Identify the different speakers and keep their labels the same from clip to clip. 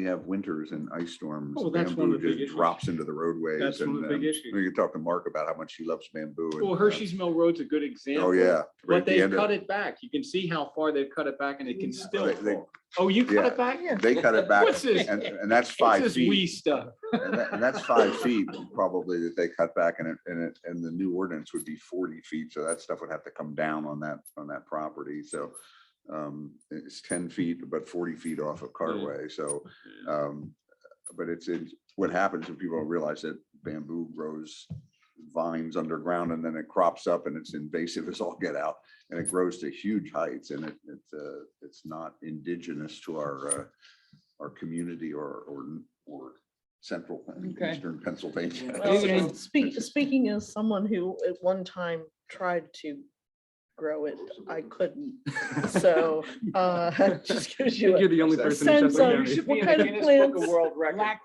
Speaker 1: we have winters and ice storms,
Speaker 2: Oh, that's one
Speaker 1: bamboo
Speaker 2: of the big
Speaker 1: just
Speaker 2: issues.
Speaker 1: drops into the roadways.
Speaker 2: That's one of
Speaker 1: and,
Speaker 2: the big
Speaker 1: um,
Speaker 2: issues.
Speaker 1: We could talk to Mark about how much he loves bamboo. and,
Speaker 2: Well,
Speaker 1: uh,
Speaker 2: Hershey's Mill Road's a good example.
Speaker 1: Oh, yeah. right
Speaker 2: But
Speaker 1: at the
Speaker 2: they
Speaker 1: end of-
Speaker 2: cut it back. You can see how far they've cut it back and it can still
Speaker 1: They- they-
Speaker 2: fall. Oh, you cut
Speaker 1: yeah.
Speaker 2: it back?
Speaker 1: They cut it back
Speaker 2: What's this?
Speaker 1: and, and that's
Speaker 2: What's
Speaker 1: five
Speaker 2: this
Speaker 1: feet.
Speaker 2: wee stuff?
Speaker 1: And that- and that's five feet probably that they cut back and it, and it, and the new ordinance would be forty feet. So that stuff would have to come down on that, on that property. So um, it's ten feet, but forty feet off of carway. So um, but it's, it's what happens when people don't realize that bamboo grows vines underground and then it crops up and it's invasive as all get out and it grows to huge heights and it, it's, uh, it's not indigenous to our, uh, our community or, or, or central and
Speaker 3: Okay.
Speaker 1: eastern Pennsylvania.
Speaker 3: Well,
Speaker 1: So-
Speaker 3: Okay.
Speaker 4: Speak, speaking as someone who at one time tried to grow it, I couldn't. So, uh, just gives you,
Speaker 5: You're
Speaker 4: a-
Speaker 5: the only
Speaker 1: Sense
Speaker 5: person in
Speaker 4: of-
Speaker 5: Suffolk County.
Speaker 4: should be What in the kind of Guinness Book of plans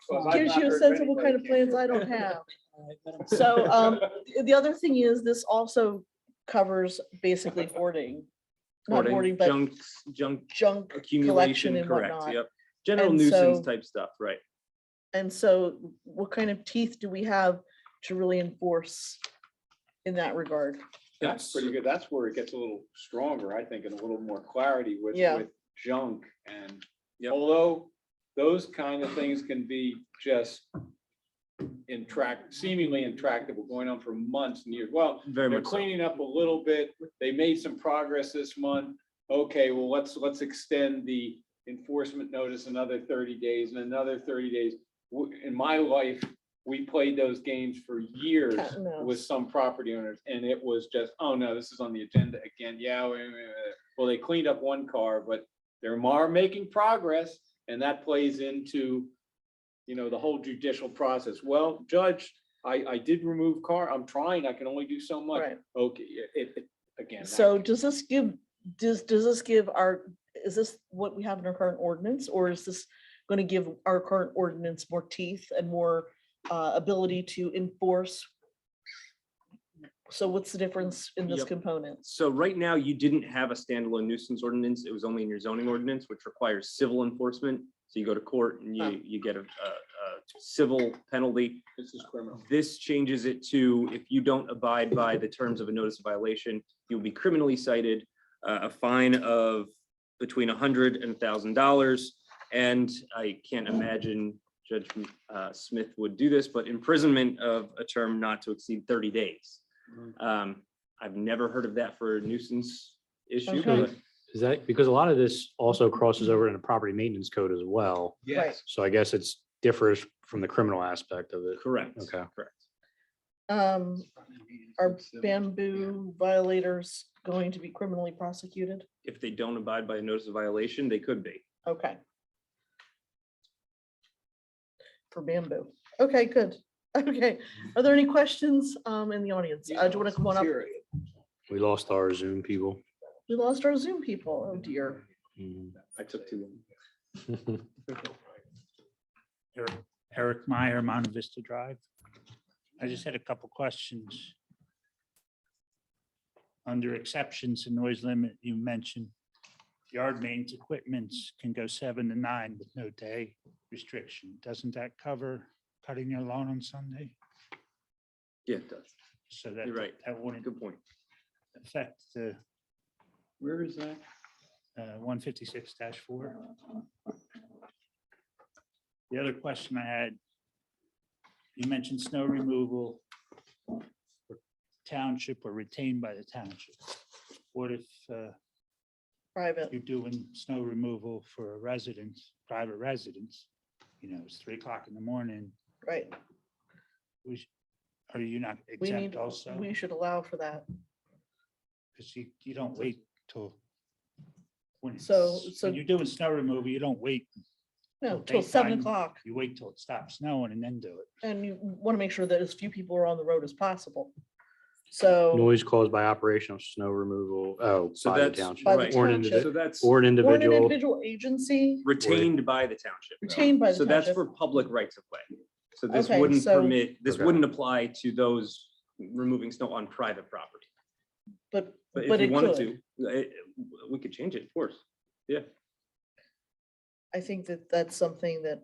Speaker 4: World gives you a sense of what kind of plans I don't have. So, um, the other thing is this also covers basically hoarding. Not hoarding,
Speaker 5: Hoarding,
Speaker 4: but
Speaker 5: Junk, junk
Speaker 4: junk collection
Speaker 5: accumulation,
Speaker 4: and
Speaker 5: correct,
Speaker 4: whatnot.
Speaker 5: yep. General
Speaker 4: And
Speaker 5: nuisance
Speaker 4: so-
Speaker 5: type stuff, right.
Speaker 4: And so what kind of teeth do we have to really enforce in that regard?
Speaker 2: That's pretty good. That's where it gets a little stronger, I think, and a little more clarity with,
Speaker 4: Yeah.
Speaker 2: with junk and
Speaker 5: Yep.
Speaker 2: although those kind of things can be just intract, seemingly intractable, going on for months and years. Well,
Speaker 5: Very
Speaker 2: they're
Speaker 5: much so.
Speaker 2: cleaning up a little bit. They made some progress this month. Okay, well, let's, let's extend the enforcement notice another thirty days and another thirty days. W- In my life, we played those games for years
Speaker 4: Cat and
Speaker 2: with
Speaker 4: mouse.
Speaker 2: some property owners and it was just, oh no, this is on the agenda again. Yeah, wait, wait, wait. well, they cleaned up one car, but they're more making progress and that plays into, you know, the whole judicial process. Well, judge, I, I did remove car. I'm trying. I can only do so much.
Speaker 4: Right.
Speaker 2: Okay, it, it, again. that-
Speaker 4: So does this give, does, does this give our, is this what we have in our current ordinance? Or is this going to give our current ordinance more teeth and more uh, ability to enforce? So what's the difference in this
Speaker 5: Yep.
Speaker 4: component?
Speaker 5: So right now, you didn't have a standalone nuisance ordinance. It was only in your zoning ordinance, which requires civil enforcement. So you go to court and
Speaker 4: Oh.
Speaker 5: you, you get a, a, a civil penalty.
Speaker 2: This is criminal.
Speaker 5: This changes it to if you don't abide by the terms of a notice of violation, you'll be criminally cited, uh, a fine of between a hundred and a thousand dollars. And I can't imagine Judge uh, Smith would do this, but imprisonment of a term not to exceed thirty days. Um, I've never heard of that for a nuisance issue,
Speaker 4: Okay.
Speaker 5: but
Speaker 6: Is that, because a lot of this also crosses over into property maintenance code as well.
Speaker 4: Right.
Speaker 6: So I guess it's differs from the criminal aspect of it.
Speaker 5: correct.
Speaker 6: Okay.
Speaker 5: Correct.
Speaker 4: Um, Are bamboo violators going to be criminally prosecuted?
Speaker 5: If they don't abide by a notice of violation, they could be.
Speaker 4: Okay. For bamboo. Okay, good. Okay. Are there any questions um in the audience? Uh, Do you want to come on up?
Speaker 6: We lost our Zoom people.
Speaker 4: We lost our Zoom people. Oh dear.
Speaker 6: Mm.
Speaker 5: I took too long.
Speaker 7: Eric- Eric Meyer, Mount Vista Drive. I just had a couple questions. Under exceptions to noise limit, you mentioned yard maintenance equipments can go seven to nine with no day restriction. Doesn't that cover cutting your lawn on Sunday?
Speaker 5: Yeah, it does.
Speaker 7: So that,
Speaker 5: You're right.
Speaker 7: that wouldn't
Speaker 5: Good point.
Speaker 7: affect the
Speaker 2: Where is that?
Speaker 7: uh, one fifty-six four. The other question I had, you mentioned snow removal. for Township or retained by the township. What if uh,
Speaker 4: Private.
Speaker 7: you're doing snow removal for a residence, private residence? You know, it's three o'clock in the morning.
Speaker 4: Right.
Speaker 7: We sh- Are you not
Speaker 4: We
Speaker 7: exempt
Speaker 4: need,
Speaker 7: also?
Speaker 4: we should allow for that.
Speaker 7: Because you, you don't wait till. when
Speaker 4: So-
Speaker 7: it's-
Speaker 4: so-
Speaker 7: When you're doing snow removal, you don't wait
Speaker 4: No,
Speaker 7: Well,
Speaker 4: till seven
Speaker 7: daytime-
Speaker 4: o'clock.
Speaker 7: you wait till it stops snowing and then do it.
Speaker 4: And you want to make sure that as few people are on the road as possible. So
Speaker 6: Noise caused by operation of snow removal, oh,
Speaker 5: So
Speaker 6: by the
Speaker 5: that's,
Speaker 6: township,
Speaker 4: By the
Speaker 5: right.
Speaker 6: or an
Speaker 4: township.
Speaker 5: So that's
Speaker 6: or an
Speaker 4: or an
Speaker 6: individual.
Speaker 4: individual agency
Speaker 5: retained by the township.
Speaker 4: retained by the
Speaker 5: So that's
Speaker 4: township.
Speaker 5: for public rights of way. So this
Speaker 4: Okay,
Speaker 5: wouldn't
Speaker 4: so-
Speaker 5: permit, this
Speaker 6: Okay.
Speaker 5: wouldn't apply to those removing snow on private property.
Speaker 4: But,
Speaker 5: But
Speaker 4: But
Speaker 5: if you
Speaker 4: it
Speaker 5: wanted
Speaker 4: could.
Speaker 5: to, it- we could change it, of course.
Speaker 4: I think that that's something that